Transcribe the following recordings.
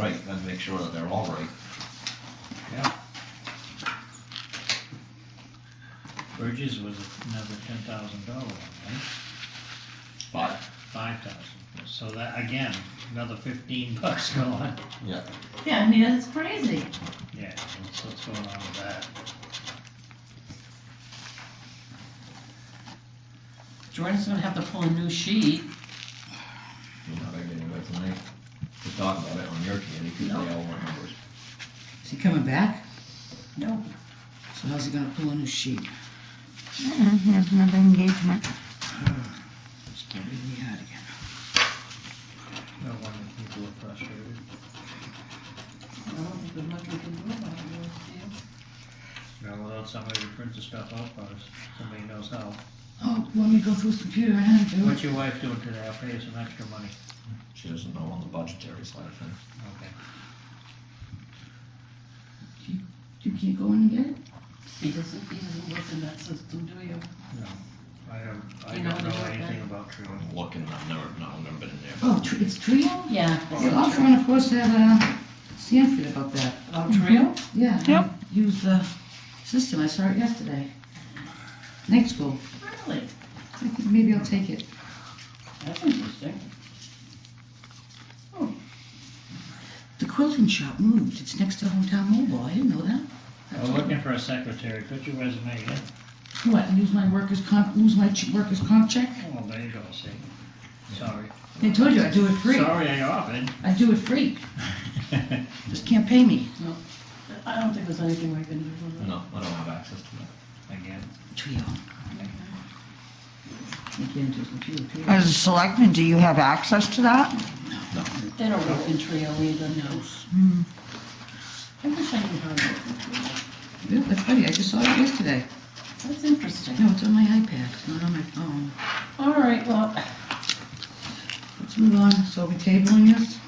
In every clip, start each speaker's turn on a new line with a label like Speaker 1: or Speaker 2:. Speaker 1: right, and make sure that they're all right.
Speaker 2: Yeah. Bridges was another ten thousand dollar one, right?
Speaker 1: But,
Speaker 2: Five thousand, so that, again, another fifteen bucks going,
Speaker 1: yeah,
Speaker 3: Yeah, I mean, that's crazy.
Speaker 2: yeah, that's what's going on with that.
Speaker 3: Jordan's gonna have to pull a new sheet.
Speaker 1: you're not gonna get into it tonight. We'll talk about it on your committee, because they all want numbers.
Speaker 4: Is he coming back?
Speaker 3: No.
Speaker 4: So how's he gonna pull a new sheet?
Speaker 5: Mm-mm, He has Mm-hmm, another engagement.
Speaker 4: It's gonna be me out again.
Speaker 2: No wonder people are frustrated.
Speaker 3: I don't think there's much we can do about it.
Speaker 2: Now, without somebody to print the stuff out for us, somebody knows how.
Speaker 4: Oh, let me to go through his computer and I'll do it.
Speaker 2: What's your wife doing today? I'll pay you some extra money.
Speaker 1: She doesn't know on the budgetary side of things.
Speaker 2: Okay.
Speaker 4: You can't go in and get it?
Speaker 3: He doesn't, he doesn't work in that system, do you?
Speaker 2: No, I don't, I
Speaker 3: You know
Speaker 2: don't
Speaker 3: anything
Speaker 2: know
Speaker 3: about
Speaker 2: anything
Speaker 3: that?
Speaker 2: about Truon.
Speaker 1: I'm looking, I've never, no, I've never been in there.
Speaker 4: Oh, tr- it's Trio?
Speaker 3: Yeah.
Speaker 4: Yeah, I'll try and of course have, uh, Sanford about that. Mm-hmm.
Speaker 3: About Oh, Trio?
Speaker 4: Yeah.
Speaker 5: Yep.
Speaker 4: I Use the system, I saw it yesterday. Next school,
Speaker 3: Really?
Speaker 4: I think maybe I'll take it.
Speaker 3: That's interesting.
Speaker 4: The quilting shop moved, it's next to Hometown Mobile, I didn't know that.
Speaker 2: We're looking for a secretary, put your resume in.
Speaker 4: What, lose my workers' comp, lose my ch- workers' comp check?
Speaker 2: Oh, there you go, see. Sorry.
Speaker 4: I told you, I do it free,
Speaker 2: Sorry I offered.
Speaker 4: I do it free, just can't pay me.
Speaker 3: I don't think there's anything we can do with it.
Speaker 1: No, I don't have access to that.
Speaker 2: Again.
Speaker 4: Trio. I get into his computer, Trio.
Speaker 5: As a selectman, do you have access to that?
Speaker 3: They don't work in Trio either, no.
Speaker 5: Hmm.
Speaker 3: I wish I knew how to work in Trio.
Speaker 4: Yeah, that's funny, I just saw it yesterday.
Speaker 3: That's interesting.
Speaker 4: No, it's on my iPad, it's not on my phone.
Speaker 3: All right, well,
Speaker 4: Let's move on, so we tabling this?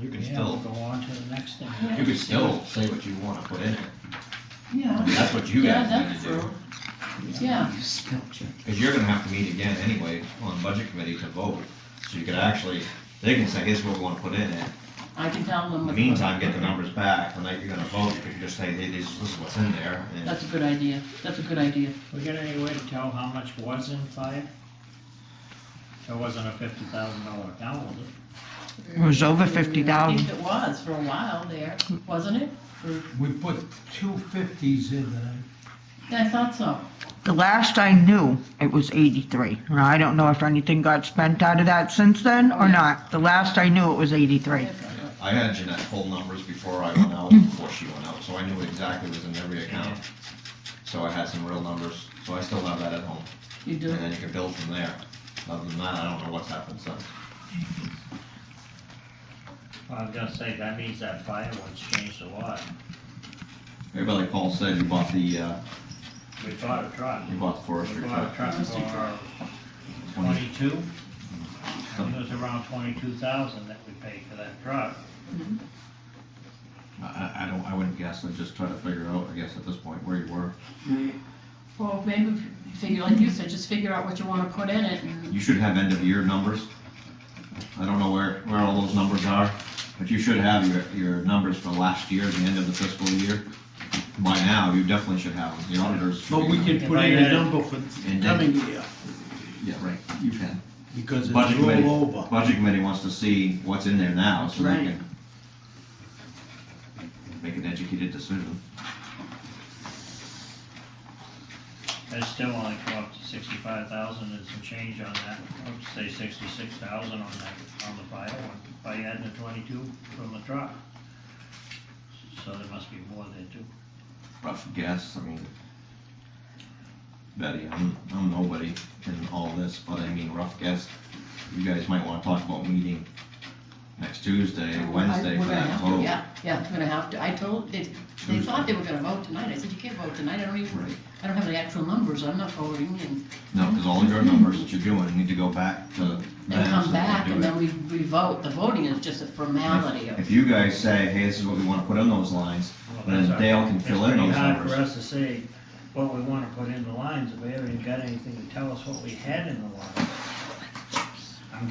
Speaker 1: You can
Speaker 2: Yeah, we'll
Speaker 1: still,
Speaker 2: go on to the next thing.
Speaker 3: Yeah.
Speaker 1: you can still say what you wanna put in it. I
Speaker 3: yeah.
Speaker 1: mean, that's what you
Speaker 3: Yeah,
Speaker 1: guys need
Speaker 3: that's
Speaker 1: to do.
Speaker 3: true. Yeah.
Speaker 4: You spell check.
Speaker 1: Because you're gonna have to meet again anyway on budget committee to vote. So you could actually, they can say, here's what we wanna put in it.
Speaker 3: I can tell
Speaker 1: In
Speaker 3: them.
Speaker 1: the
Speaker 3: what-
Speaker 1: meantime, get the numbers back, the night you're gonna vote, you can just say, hey, this this is what's in there. and-
Speaker 3: That's a good idea. That's a good idea.
Speaker 2: We got any way to tell how much was in fire? It wasn't a fifty thousand dollar account, was it?
Speaker 5: It was over fifty
Speaker 3: I
Speaker 5: thousand.
Speaker 3: think it was for a while there, wasn't it? For-
Speaker 6: We put two fifties in there.
Speaker 3: Yeah, I thought so.
Speaker 5: The last I knew, it was eighty-three. Now, I don't know if anything got spent out of that since then or not. The last I knew, it was eighty-three.
Speaker 1: I had Jeanette pull numbers before I went out, before she went out, so I knew exactly what was in every account. So I had some real numbers, so I still have that at home,
Speaker 3: You do.
Speaker 1: and then you can build from there. Other than that, I don't know what's happened since.
Speaker 2: I was gonna say, that means that fire was changed a lot.
Speaker 1: Maybe like Paul said, you bought the, uh,
Speaker 2: We bought a truck.
Speaker 1: you bought the
Speaker 2: We
Speaker 1: forestry
Speaker 2: bought a
Speaker 1: truck.
Speaker 2: truck
Speaker 3: Forestry
Speaker 2: for
Speaker 3: truck.
Speaker 2: twenty-two. And It was around twenty-two thousand that we paid for that truck.
Speaker 1: I- I, I don't, I wouldn't guess, I'd just try to figure out, I guess, at this point, where you were.
Speaker 3: Well, maybe f- figure, like you said, just figure out what you want to put in it and
Speaker 1: You should have end of year numbers. I don't know where, where all those numbers are, but you should have your, your numbers for last year, the end of the fiscal year. By now, you definitely should have them, the auditors. should
Speaker 6: But
Speaker 1: be
Speaker 6: we
Speaker 1: knowing.
Speaker 6: can put in a number for the coming year,
Speaker 1: Yeah, right, you can.
Speaker 6: because it's
Speaker 1: Budget committee,
Speaker 6: all over.
Speaker 1: budget committee wants to see what's in there now, so they
Speaker 4: Right.
Speaker 1: can make an educated decision.
Speaker 2: It still only come up to sixty-five thousand and some change on that, I would say sixty-six thousand on that, on the fire one, by adding the twenty-two from the truck. So there must be more there too.
Speaker 1: Rough guess, I mean, Betty, I'm, I'm nobody in all this, but I mean, rough guess. You guys might wanna talk about meeting next Tuesday, Wednesday
Speaker 3: I- we're
Speaker 1: for
Speaker 3: gonna
Speaker 1: that
Speaker 3: have to,
Speaker 1: vote.
Speaker 3: Yeah, yeah, we're gonna have to, I told, they, they thought they were gonna vote tonight, I said, you can't vote tonight, I don't even,
Speaker 1: Right.
Speaker 3: I don't have the actual numbers, I'm not voting, and,
Speaker 1: No, cause all of your numbers that you're doing need to go back to them.
Speaker 3: and
Speaker 1: so
Speaker 3: come
Speaker 1: they can
Speaker 3: back,
Speaker 1: do
Speaker 3: and
Speaker 1: it.
Speaker 3: then we, we vote, the voting is just a formality of,
Speaker 1: If you guys say, hey, this is what we wanna put in those lines,
Speaker 2: Well,
Speaker 1: then
Speaker 2: that's our-
Speaker 1: Dale can fill in those
Speaker 2: It's pretty hard
Speaker 1: numbers.
Speaker 2: for us to say what we wanna put in the lines, if we haven't even got anything to tell us what we had in the lines.